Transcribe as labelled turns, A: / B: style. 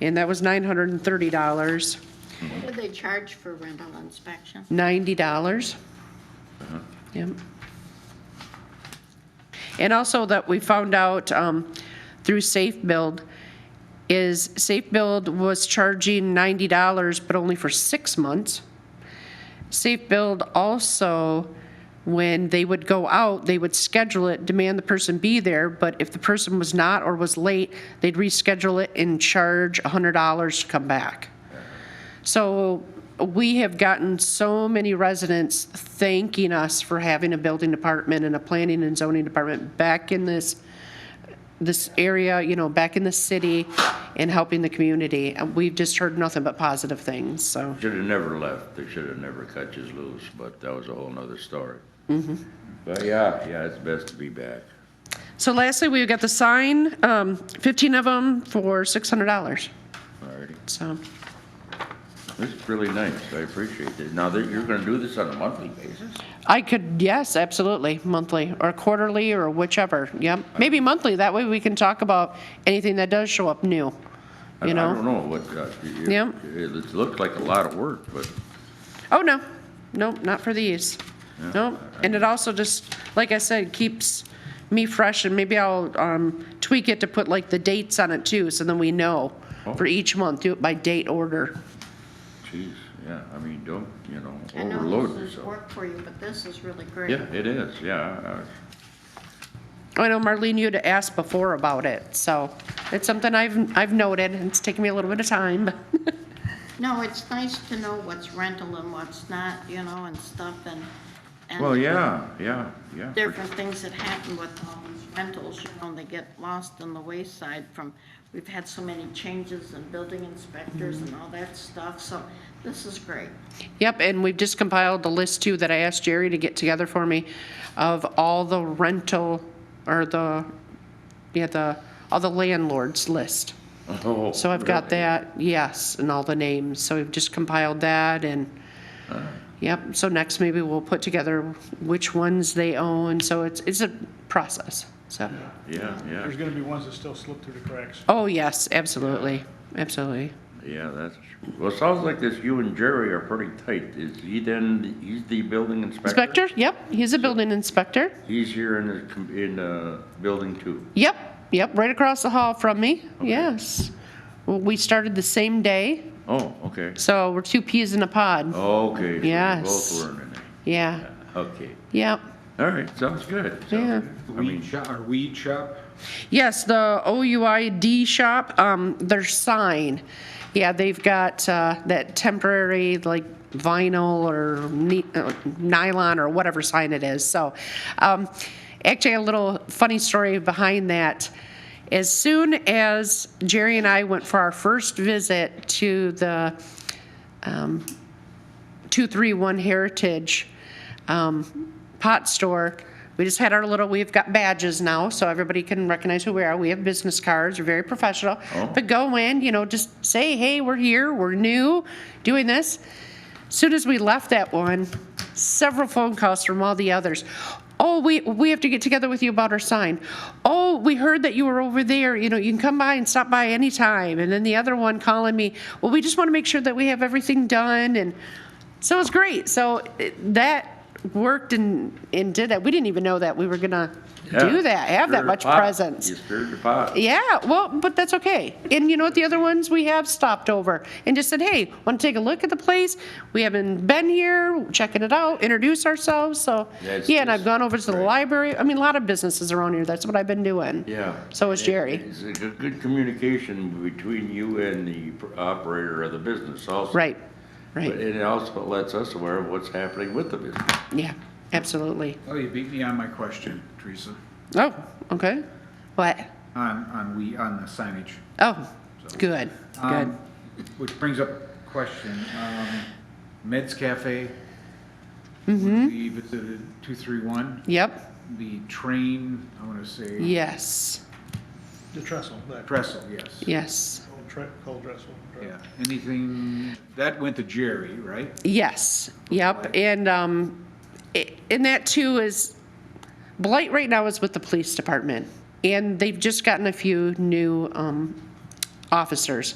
A: and that was $930.
B: What do they charge for rental inspection?
A: ninety dollars. Yep. And also that we found out, um, through Safe Build, is Safe Build was charging ninety dollars, but only for six months. Safe Build also, when they would go out, they would schedule it, demand the person be there, but if the person was not or was late, they'd reschedule it and charge hundred dollars to come back. So we have gotten so many residents thanking us for having a building department and a planning and zoning department back in this, this area, you know, back in the city and helping the community. And We've just heard nothing but positive things, so.
C: Should have never left. They should have never cut you loose, but that was a whole nother story.
A: Mm-hmm.
C: But yeah, yeah, it's best to be back.
A: So lastly, we've got the sign, um, 15 of them for $600,
C: Alrighty.
A: so.
C: This is really nice. I appreciate it. Now, that you're gonna do this on a monthly basis?
A: I could, yes, absolutely, monthly, or quarterly, or whichever, yep. Maybe monthly, that way we can talk about anything that does show up new,
C: I-
A: you know?
C: I don't know what, uh, it,
A: Yep.
C: it it looked like a lot of work, but
A: Oh, no, nope, not for these. Nope, and it also just, like I said, keeps me fresh, and maybe I'll um, tweak it to put like the dates on it too, so then we know for
C: Oh.
A: each month, do it by date order.
C: geez, yeah, I mean, don't, you know,
B: I know
C: overload
B: this is
C: yourself.
B: work for you, but this is really great.
C: Oh, Yeah, it is, yeah. uh,
A: I know Marlene, you had asked before about it, so it's something I've, I've noted, and it's taken me a little bit of time.
B: No, it's nice to know what's rental and what's not, you know, and stuff and.
C: I-
B: and
C: Well, yeah, yeah, yeah. for
B: Different things that happen with all these rentals, you know, they get lost in the wayside from, we've had so many changes in building inspectors and all that stuff, so this is great.
A: Yep, and we've just compiled the list too that I asked Jerry to get together for me of all the rental, or the, yeah, the, all the landlords list.
C: Oh,
A: So I've got
C: really?
A: that, yes, and all the names, so we've just compiled that and, yep, so next maybe we'll put together which ones they own, so it's, it's a process, so.
C: Yeah, yeah,
D: There's gonna be ones that still slip through the cracks.
A: Oh, yes, absolutely, absolutely.
C: yeah, that's, true. well, it sounds like this, you and Jerry are pretty tight. Is he then, he's the building inspector?
A: Inspector, yep, he's a building inspector,
C: He's here in the, com- in the building too.
A: yep, yep, right across the hall from me, yes. Well, we started the same day,
C: Oh, okay.
A: so we're two peas in a
C: Oh.
A: pod,
C: Okay. so we
A: Yes.
C: Both were in it.
A: yeah,
C: Okay.
A: yep.
C: All right, sounds good. sounds
A: Yeah.
C: good. I
E: Weed
C: mean,
E: shop, our weed shop?
A: Yes, the OUID shop, um, their sign. Yeah, they've got, uh, that temporary, like vinyl or ni- uh, nylon or whatever sign it is, so. Um, actually, a little funny story behind that. As soon as Jerry and I went for our first visit to the, um, 231 Heritage um, Pot Store. We just had our little, we've got badges now, so everybody can recognize who we are. We have business cards, we're very professional.
C: Oh.
A: But go in, you know, just say, hey, we're here, we're new, doing this. Soon as we left that one, several phone calls from all the others. Oh, we, we have to get together with you about our sign. Oh, we heard that you were over there, you know, you can come by and stop by anytime. And then the other one calling me, well, we just want to make sure that we have everything done and so it's great. So it- that worked and, and did that. We didn't even know that we were gonna do
C: yeah,
A: that, have
C: stir
A: that
C: the
A: much
C: pot.
A: presence. E
C: You stirred the pot.
A: Yeah, well, but that's okay. And you know what? The other ones we have stopped over and just said, hey, want to take a look at the place? We haven't been here, checking it out, introduce ourselves. So,
C: Yeah, it's
A: yeah, and
C: just-
A: I've gone over to the
C: right.
A: library. I mean, a lot of businesses around here. That's what I've been doing.
C: Yeah.
A: So is Jerry.
C: It's a good, good communication between you and the pr- operator of the business also.
A: Right,
C: But
A: right.
C: it also lets us aware of what's happening with the business.
A: Yeah, absolutely.
E: Oh, you beat me on my question, Teresa,
A: Oh, okay. What?
E: on, on we, on the signage.
A: Oh, good, good.
E: Um, Which brings up a question. um, Meds Cafe, which we visited 231,
A: Yep.
E: the train, I want to say,
A: Yes,
D: The trestle, that
E: trestle, yes.
A: yes,
D: old tre- cold trestle.
E: Yeah, anything, that went to Jerry, right?
A: yes, yep. And, um, i- and that too is, blight right now is with the police department. And they've just gotten a few new, um, officers.